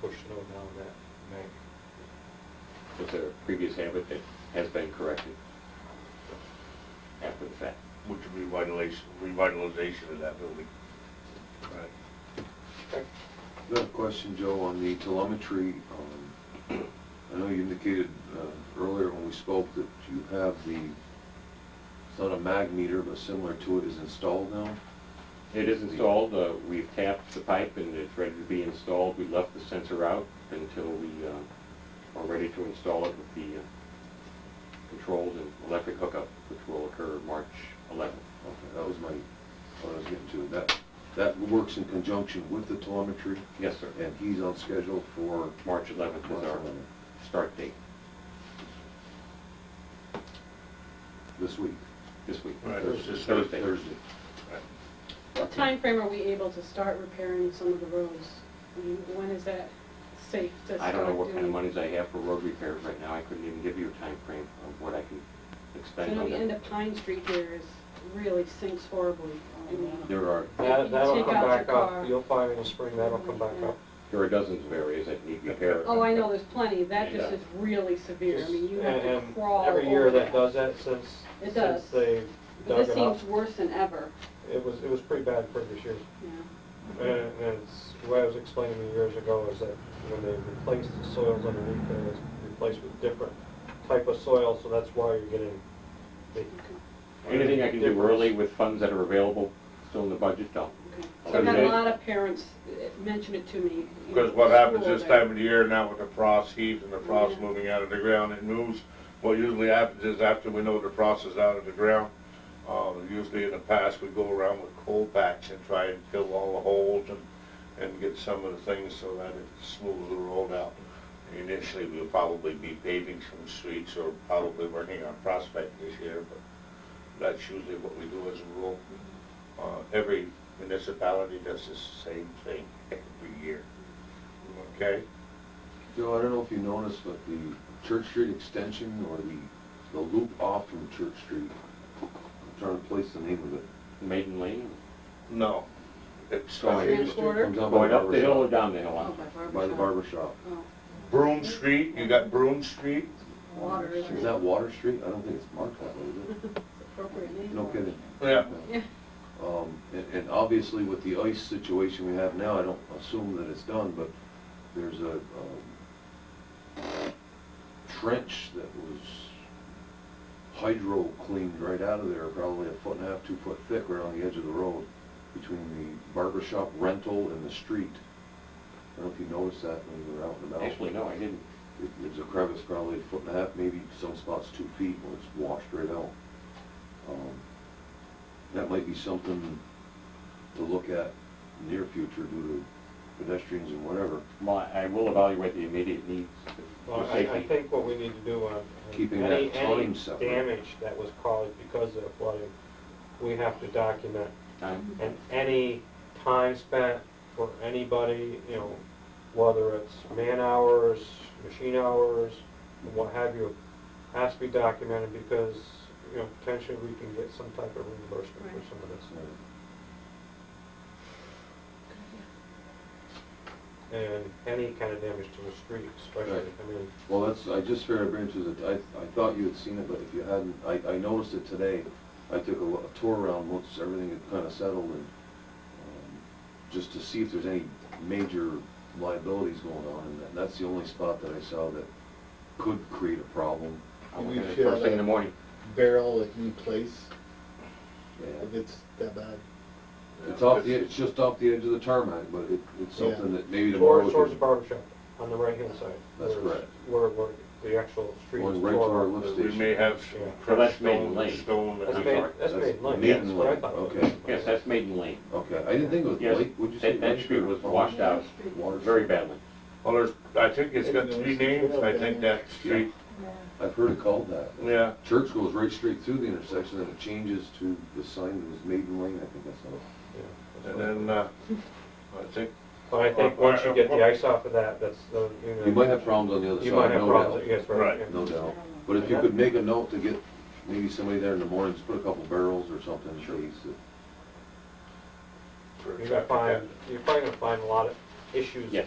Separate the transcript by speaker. Speaker 1: push snow down that bank.
Speaker 2: Was there a previous habit that has been corrected after the fact?
Speaker 3: which revitalization, revitalization of that building.
Speaker 4: Right.
Speaker 1: Okay.
Speaker 4: I have a question, Joe, on the telemetry. um, I know you indicated uh, earlier when we spoke that you have the, it's not a mag meter, but similar to it is installed now?
Speaker 2: It is installed, uh, we've tapped the pipe and it's ready to be installed. We left the sensor out until we uh, are ready to install it with the uh, controls and electric hookup, which will occur March 11th.
Speaker 4: Okay, that was my, what I was getting to. That, that works in conjunction with the telemetry,
Speaker 2: Yes, sir.
Speaker 4: and he's on schedule for
Speaker 2: March 11th is our start date
Speaker 4: this week.
Speaker 2: this week.
Speaker 3: Right, it's just
Speaker 2: Thursday.
Speaker 4: Thursday.
Speaker 5: What time frame are we able to start repairing some of the roads? I mean, when is that safe to
Speaker 2: I
Speaker 5: start
Speaker 2: don't know
Speaker 5: doing?
Speaker 2: what kind of monies I have for road repairs right now. I couldn't even give you a time frame of what I can expend
Speaker 5: You know,
Speaker 2: on
Speaker 5: the end
Speaker 2: that.
Speaker 5: of Pine Street here is, really sinks horribly. I mean,
Speaker 2: There are
Speaker 1: That, that'll
Speaker 5: Take
Speaker 1: come
Speaker 5: out your
Speaker 1: back
Speaker 5: car.
Speaker 1: up, you'll find in the spring, that'll come back up.
Speaker 2: There are dozens of areas that need repair.
Speaker 5: Oh, I know, there's plenty, that just
Speaker 2: Yeah.
Speaker 5: is really severe, I mean, you have
Speaker 1: And-
Speaker 5: to
Speaker 1: and
Speaker 5: crawl
Speaker 1: Every year
Speaker 5: over
Speaker 1: that does that since, since
Speaker 5: It does.
Speaker 1: they
Speaker 5: But
Speaker 1: dug
Speaker 5: this
Speaker 1: it up.
Speaker 5: seems worse than ever,
Speaker 1: It was, it was pretty bad previous years.
Speaker 5: you know.
Speaker 1: And and it's, the way I was explaining to you years ago is that when they replaced the soils underneath there, it's replaced with different type of soil, so that's why you're getting the
Speaker 2: Anything I can do early with funds that are available still in the budget, I'll
Speaker 5: Okay.
Speaker 2: Oh,
Speaker 5: So I've had
Speaker 2: yeah.
Speaker 5: a lot of parents eh, mention it to me. you know,
Speaker 3: Because what happens
Speaker 5: school,
Speaker 3: this
Speaker 5: that-
Speaker 3: time of the year now with the frost heaves and the frost
Speaker 5: Yeah.
Speaker 3: moving out of the ground, it moves. What usually happens is after we know the frost is out of the ground, uh, usually in the past, we go around with coal packs and try and fill all the holes and, and get some of the things so that it smooths the road out. Initially, we'll probably be paving some streets or probably working on Prospect this year, but that's usually what we do as a rule. Uh, every municipality does the same thing every year. Okay?
Speaker 4: Joe, I don't know if you noticed, but the Church Street extension or the, the loop off from Church Street, I'm trying to place the name of it.
Speaker 2: Maiden Lane,
Speaker 3: No. It's
Speaker 2: Going
Speaker 5: Three and a quarter?
Speaker 4: Comes out by
Speaker 2: going up the hill or
Speaker 4: barber
Speaker 2: down the
Speaker 5: Oh,
Speaker 2: hill.
Speaker 4: shop.
Speaker 5: by
Speaker 4: By the
Speaker 5: barber shop.
Speaker 4: barber shop.
Speaker 5: Oh,
Speaker 3: Broom Street, you got Broom Street?
Speaker 5: Water is
Speaker 4: Is that Water Street? I don't think it's marked that way, is
Speaker 5: appropriate
Speaker 4: it?
Speaker 5: name.
Speaker 4: No kidding.
Speaker 3: Yeah.
Speaker 5: Yeah.
Speaker 4: Um, and, and obviously with the ice situation we have now, I don't assume that it's done, but there's a, um, trench that was hydro cleaned right out of there, probably a foot and a half, two foot thick right on the edge of the road between the barber shop rental and the street. I don't know if you noticed that when you were out and about.
Speaker 2: Actually, no, I didn't.
Speaker 4: It- There's a crevice probably a foot and a half, maybe some spots two feet, where it's washed right out. Um, That might be something to look at near future due to pedestrians and whatever,
Speaker 2: Well, I I will evaluate the immediate needs
Speaker 1: Well,
Speaker 2: for
Speaker 1: I, I
Speaker 2: safety.
Speaker 1: think what we need to do on on
Speaker 4: Keeping
Speaker 1: any,
Speaker 4: that
Speaker 1: any
Speaker 4: time separate.
Speaker 1: damage that was caused because of the flooding, we have to document.
Speaker 2: Time.
Speaker 1: And any time spent for anybody, you know, whether it's man hours, machine hours, and what have you, has to be documented because, you know, potentially we can get some type of reimbursement for
Speaker 5: Right.
Speaker 1: some of this.
Speaker 4: so.
Speaker 1: And any kind of damage to the street especially, I mean,
Speaker 4: Well, that's, I just figured I'd bring it to the, I, I thought you had seen it, but if you hadn't, I, I noticed it today. I took a lo- a tour around once everything had kind of settled and, um, just to see if there's any major liabilities going on. And that- that's the only spot that I saw that could create a problem.
Speaker 2: I will
Speaker 6: We
Speaker 2: get it
Speaker 6: share
Speaker 2: First thing in
Speaker 6: that.
Speaker 2: the morning.
Speaker 6: barrel at new place
Speaker 4: Yeah.
Speaker 6: if it's that bad.
Speaker 4: It's off the, it's just off the edge of the tarmac, but it, it's something that maybe tomorrow.
Speaker 1: towards,
Speaker 4: we
Speaker 1: towards the
Speaker 4: can-
Speaker 1: barber shop on the right-hand side.
Speaker 4: That's
Speaker 1: where-
Speaker 4: correct.
Speaker 1: Where, where the actual street is.
Speaker 4: Going right to
Speaker 1: toward-
Speaker 4: our lift
Speaker 3: We may
Speaker 4: station.
Speaker 3: have some
Speaker 1: Yeah.
Speaker 2: Well, that's
Speaker 3: crushed
Speaker 2: Maiden
Speaker 3: stone,
Speaker 2: Lane.
Speaker 3: stone. that-
Speaker 1: That's
Speaker 2: I'm
Speaker 1: made,
Speaker 2: sorry.
Speaker 1: that's
Speaker 4: That's
Speaker 1: made lane,
Speaker 4: maiden
Speaker 1: that's what I
Speaker 4: lane,
Speaker 1: thought.
Speaker 4: okay.
Speaker 2: Yes, that's Maiden Lane.
Speaker 4: Okay, I didn't think it was
Speaker 2: Yes,
Speaker 4: Blake, would you say?
Speaker 2: That, that
Speaker 4: Blake
Speaker 2: street
Speaker 4: or
Speaker 2: was
Speaker 4: Palmer?
Speaker 2: washed out
Speaker 4: Water
Speaker 2: very
Speaker 4: Street.
Speaker 2: badly.
Speaker 3: Well, there's, I think it's got three names, I think that street,
Speaker 4: I've heard it called that.
Speaker 3: yeah.
Speaker 4: Church goes right straight through the intersection, and it changes to the sign that was Maiden Lane, I think that's how. it-
Speaker 3: And then, uh, I think,
Speaker 1: But I think once you get the ice off of that, that's the, you know.
Speaker 4: You might have problems on the other
Speaker 1: You might
Speaker 4: side,
Speaker 1: have
Speaker 4: no
Speaker 1: problems,
Speaker 4: doubt.
Speaker 1: yes, right.
Speaker 3: Right.
Speaker 1: yeah.
Speaker 4: No doubt. But if you could make a note to get maybe somebody there in the mornings, put a couple barrels or something, uh, please.
Speaker 1: You're gonna find, you're probably gonna find a lot of issues.
Speaker 2: Yes.